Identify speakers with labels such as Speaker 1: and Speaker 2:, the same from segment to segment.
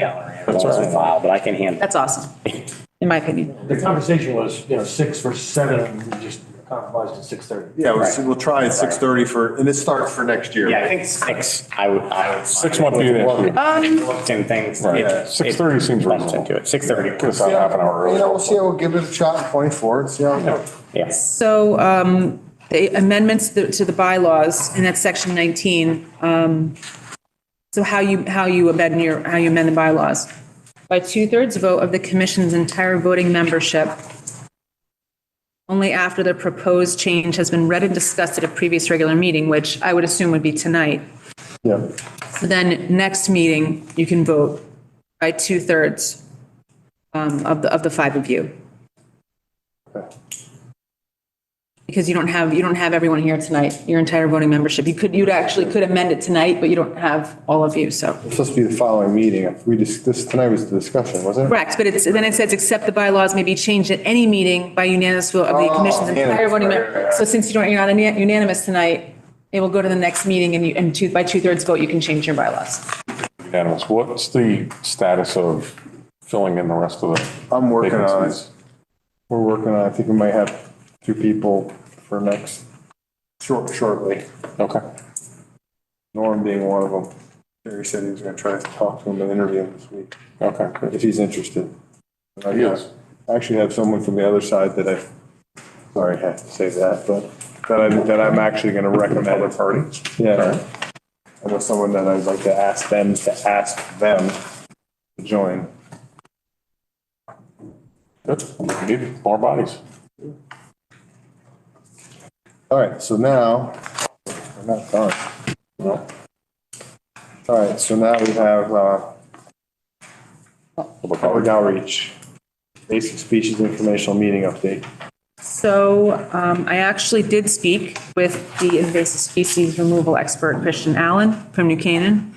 Speaker 1: gallery. That's a file, but I can handle.
Speaker 2: That's awesome, in my opinion.
Speaker 3: The conversation was, you know, six versus seven, and we just compromised at six thirty.
Speaker 4: Yeah, we'll, we'll try at six thirty for, and it starts for next year.
Speaker 1: Yeah, I think six, I would, I would.
Speaker 5: Six months would be an issue.
Speaker 1: Same things.
Speaker 5: Right.
Speaker 1: It-
Speaker 5: Six thirty seems
Speaker 1: Runs
Speaker 5: reasonable.
Speaker 1: into it, six thirty.
Speaker 5: Get us out half an hour
Speaker 4: You know, we'll
Speaker 5: early.
Speaker 4: see, we'll give it a shot in twenty-four, and see how it goes.
Speaker 1: Yes,
Speaker 2: So um, the amendments to the- to the bylaws, and that's section 19. um, So how you, how you amend your, how you amend the bylaws? By two-thirds vote of the commission's entire voting membership, only after the proposed change has been read and discussed at a previous regular meeting, which I would assume would be tonight.
Speaker 4: Yeah.
Speaker 2: So Then next meeting, you can vote by two-thirds um, of the, of the five of you. Because you don't have, you don't have everyone here tonight, your entire voting membership. You could, you'd actually could amend it tonight, but you don't have all of you, so.
Speaker 4: It's supposed to be the following meeting. If we just, this, tonight was the discussion, wasn't it?
Speaker 2: Correct, but it's, then it says, except the bylaws may be changed at any meeting by unanimous vote of the
Speaker 4: Oh,
Speaker 2: commission's entire
Speaker 4: unanimous,
Speaker 2: voting
Speaker 4: right, right,
Speaker 2: member.
Speaker 4: right.
Speaker 2: So since you don't, you're not unanimous tonight, it will go to the next meeting and you, and two, by two-thirds vote, you can change your bylaws.
Speaker 5: Unanimous. What's the status of filling in the rest of the?
Speaker 4: I'm working on it.
Speaker 5: vacancies?
Speaker 4: We're working on, it. I think we might have two people for next, short, shortly.
Speaker 5: Okay.
Speaker 4: Norm being one of them. Jerry said he was gonna try to talk to him and interview him this week,
Speaker 5: Okay. good.
Speaker 4: if he's interested. And I
Speaker 5: He is.
Speaker 4: I Actually have someone from the other side that I, sorry, I have to say that, but that I, that I'm actually gonna recommend. Other party? Yeah. I know someone that I'd like to ask them, to ask them to join.
Speaker 5: Good. We Need more bodies.
Speaker 4: All right, so now, we're not done. No. All right, so now we have, uh,
Speaker 5: Public
Speaker 4: public outreach,
Speaker 5: outreach.
Speaker 4: basic species informational meeting update.
Speaker 2: So um, I actually did speak with the invasive species removal expert, Christian Allen from New Canaan.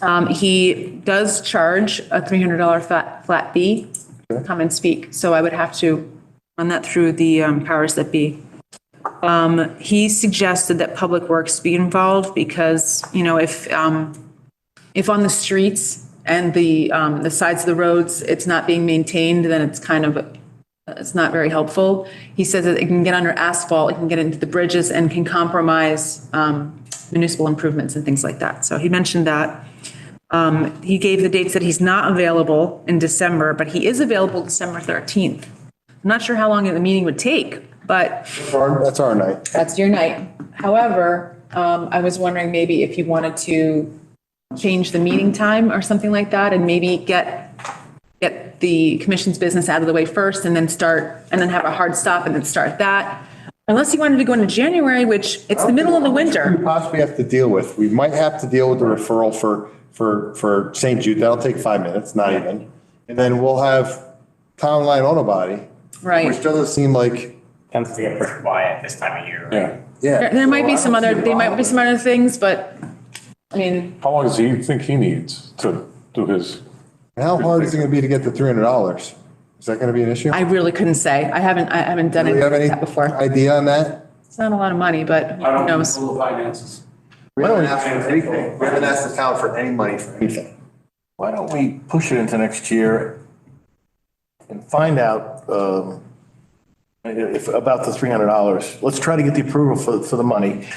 Speaker 2: Um, He does charge a $300 flat, flat fee to come and speak, so I would have to run that through the um, powers that be. Um, He suggested that Public Works be involved because, you know, if, um, if on the streets and the, um, the sides of the roads, it's not being maintained, then it's kind of, it's not very helpful. He says that it can get under asphalt, it can get into the bridges and can compromise, um, municipal improvements and things like that. So he mentioned that. Um, he gave the dates that he's not available in December, but he is available December 13th. I'm not sure how long the meeting would take, but
Speaker 4: That's our- That's our night.
Speaker 2: that's your night. However, um, I was wondering maybe if you wanted to change the meeting time or something like that and maybe get, get the commission's business out of the way first and then start, and then have a hard stop and then start that. Unless you wanted to go into January, which it's the middle of the
Speaker 4: We
Speaker 2: winter.
Speaker 4: possibly have to deal with, we might have to deal with the referral for, for, for St. Jude. That'll take five minutes, not even. And then we'll have Town Line Auto Body, which
Speaker 2: Right.
Speaker 4: doesn't seem like,
Speaker 1: tends to get pretty quiet this time of year.
Speaker 5: Yeah.
Speaker 4: yeah.
Speaker 2: There there might be some
Speaker 4: So I
Speaker 2: other,
Speaker 4: don't see a
Speaker 2: there might
Speaker 4: problem.
Speaker 2: be some other things, but I mean,
Speaker 5: How long does he think he needs to do his?
Speaker 4: How hard is it gonna be to get the three hundred dollars? Is that gonna be an issue?
Speaker 2: I really couldn't say. I haven't, I haven't done
Speaker 4: Do you have
Speaker 2: anything
Speaker 4: any
Speaker 2: like that before.
Speaker 4: idea on that?
Speaker 2: It's not a lot of money, but who knows?
Speaker 3: Full of finances.
Speaker 4: We haven't asked for anything. We haven't asked the town for any money for anything.
Speaker 6: Why don't we push it into next year and find out um, if, about the $300? Let's try to get the approval for, for the money.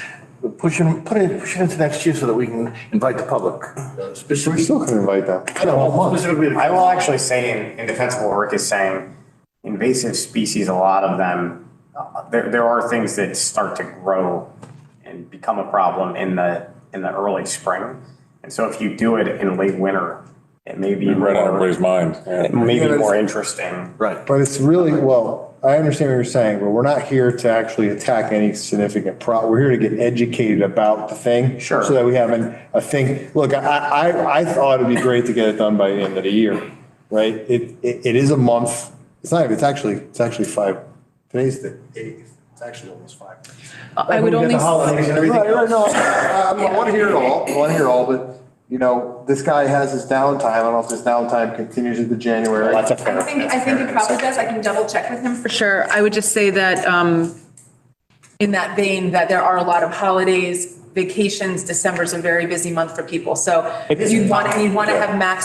Speaker 6: Push it, put it, push it into next year so that we can invite the public. uh,
Speaker 4: We
Speaker 6: Specifically,
Speaker 4: still can invite them.
Speaker 6: I don't know, specifically the-
Speaker 1: I will actually say, in, in defense of what Rick is saying, invasive species, a lot of them, uh, there, there are things that start to grow and become a problem in the, in the early spring. And so if you do it in late winter, it may be
Speaker 5: Right on
Speaker 1: more,
Speaker 5: everybody's mind. Yeah.
Speaker 1: it may
Speaker 4: Yeah,
Speaker 1: be
Speaker 4: but
Speaker 1: more
Speaker 4: it's-
Speaker 1: interesting.
Speaker 6: Right.
Speaker 4: But it's really, well, I understand what you're saying, but we're not here to actually attack any significant pro, we're here to get educated about the thing.
Speaker 1: Sure.
Speaker 4: So that we have an, a thing, look, I, I, I thought it'd be great to get it done by the end of the year, right? It, it, it is a month, it's not, it's actually, it's actually five, today's the eighth, it's actually almost five.
Speaker 2: I would only.
Speaker 4: Right, right, no, I, I want to hear it all, I want to hear it all, but, you know, this guy has his downtime, I don't know if this downtime continues into January.
Speaker 1: That's a fair.
Speaker 2: I think, I think it probably does. I can double check with him for sure. I would just say that, um, in that vein, that there are a lot of holidays, vacations, December's a very busy month for people. So
Speaker 1: It is.
Speaker 2: you'd want, you'd want to have max